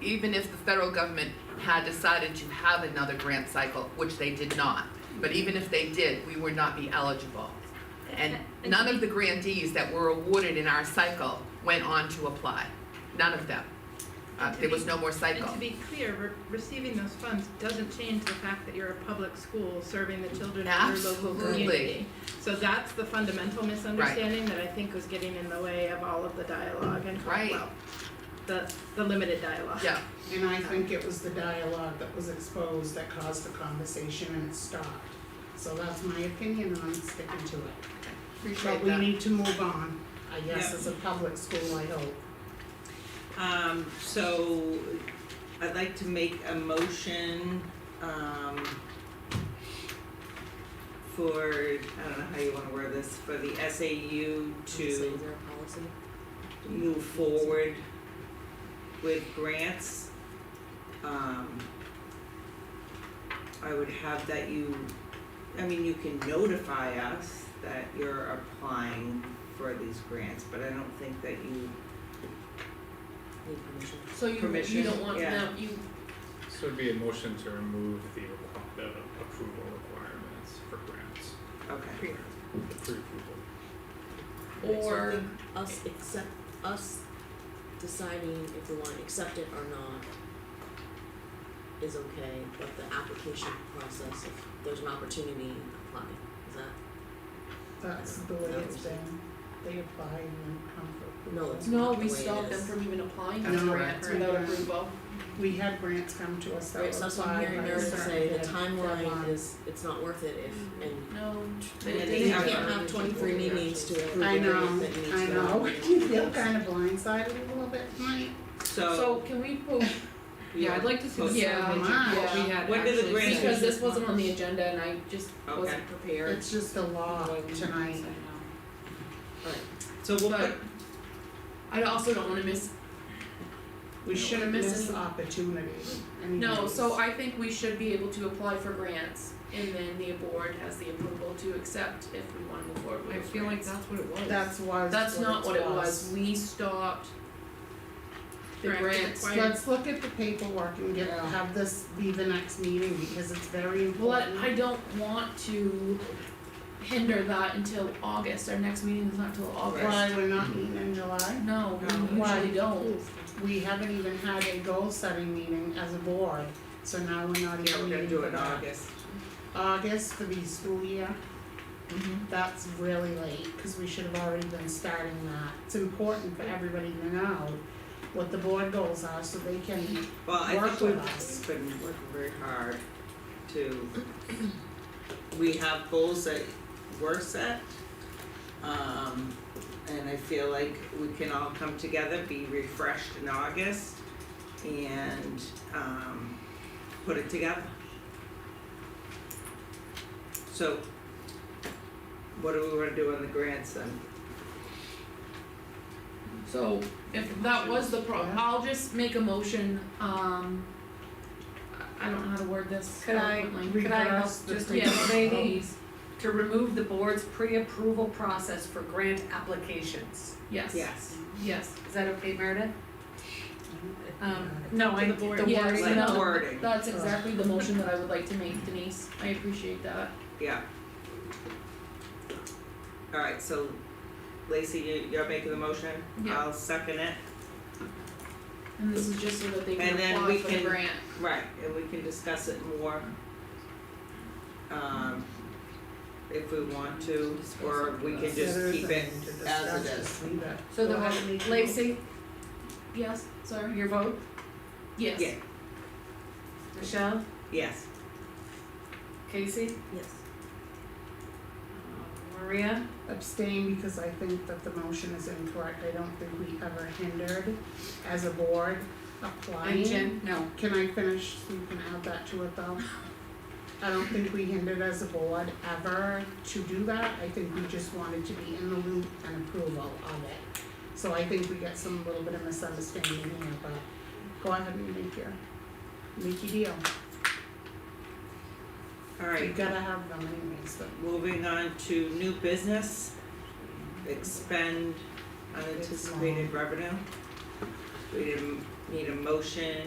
even if the federal government had decided to have another grant cycle, which they did not, but even if they did, we would not be eligible. And none of the grantees that were awarded in our cycle went on to apply, none of them. Uh, there was no more And cycle. to be clear, re- receiving those funds doesn't change the fact that you're a public school serving the children of your local Absolutely. community. So that's the fundamental misunderstanding that I think was getting in the way of all of the dialogue and Right. well, the the limited dialogue. Yeah, And I think it was the dialogue that was exposed that caused the conversation and it stopped. So that's my opinion on sticking to it. But appreciate we that. need to move on, I guess, Yeah. as a public school, I hope. Um, so I'd like to make a motion, um, for, I don't know how you wanna word this, for the SAU to move forward with grants. Um, I would have that you, I mean, you can notify us that you're applying for these grants, but I don't think that you So you, you Permission, don't want yeah. them, you, So it'd be a motion to remove the requ- the approval requirements for grants, Okay. the pre-approval. or Sorry. us accept, us deciding if we wanna accept it or not is okay, but the application process, if there's an opportunity, apply, is that? That's the way it's been. They apply and then come for. No, it's No, not the way we it is. stopped them from even applying That's for correct. grants without Yeah. approval. We had grants come to us that were Right, so that's what I'm applied hearing by Meredith a certain say, the dead- timeline deadline. is, it's not worth it if, and No. And then they they can't have to- have twenty-three meetings to approve I a know, grant that needs I to know. You feel kind of blindsided a little bit tonight. So can we post, yeah, I'd like to Post it see yeah, online. what we had When did the actually grant- seen, Because this wasn't on the agenda and I just wasn't prepared. It's just a law Mm-hmm. tonight. So we'll put, But I also don't wanna miss, We No, shouldn't we're miss missing- opportunities. no, so anyways. I think we should be able to apply for grants and then the board has the approval to accept if we wanna move forward with I feel like that's what it was. That's why. That's not what it was, we stopped the Grant grants. required. Let's look at the paperwork and get, Yeah. have this be the next meeting because it's very Well, important. I I don't want to hinder that until August, our next meeting is not till August. Why we're not meeting in July? Oh, No, we Why? usually don't, We haven't even had a goal setting meeting as a board, so now we're not even yeah, we're gonna do it in meeting. August. August for the school year. Mm-hmm. That's really late, cause we should have already been starting that. It's important for everybody to know what the board goals are so they can, Well, I Work think we've with us. been working very hard to, we have goals that were set. Um, and I feel like we can all come together, be refreshed in August and, um, put it together. So, what do we wanna do on the grants then? so if that was the pro, Yeah. I'll just make a motion, um. I I don't know how to word this. Could I, eloquently. could I help Reverse the just Yes, maybe please. to remove the board's pre-approval process for grant applications? yes, yes, Yes. yes, Is that okay, Meredith? Um, To no, I, the the board. wording. Yes, Like no. wording, that's exactly the motion that I would like to make Denise, I appreciate that. yeah. Alright, so Lacey, you you're making the motion, Yeah. I'll second it, And this is just so that they can And then apply we for the can- grant, right, and we can discuss it more. Um if we want to, or we can just keep it as it is. so the, Well, how do we- Lacey, yes, sorry, your vote, yes. Yeah. Michelle, Yes, Casey, Yes. Maria, Abstain because I think that the motion is incorrect. I don't think we ever hindered as a board applying. and Jen, no. Can I finish? You can add that to it though. I don't think we hindered as a board ever to do that. I think we just wanted to be in the loop and approval of it. So I think we get some little bit of misunderstanding here, but go ahead and make your, make your deal. You alright, gotta have them anyways, but moving on to new business. Expend unanticipated revenue. We didn't need a motion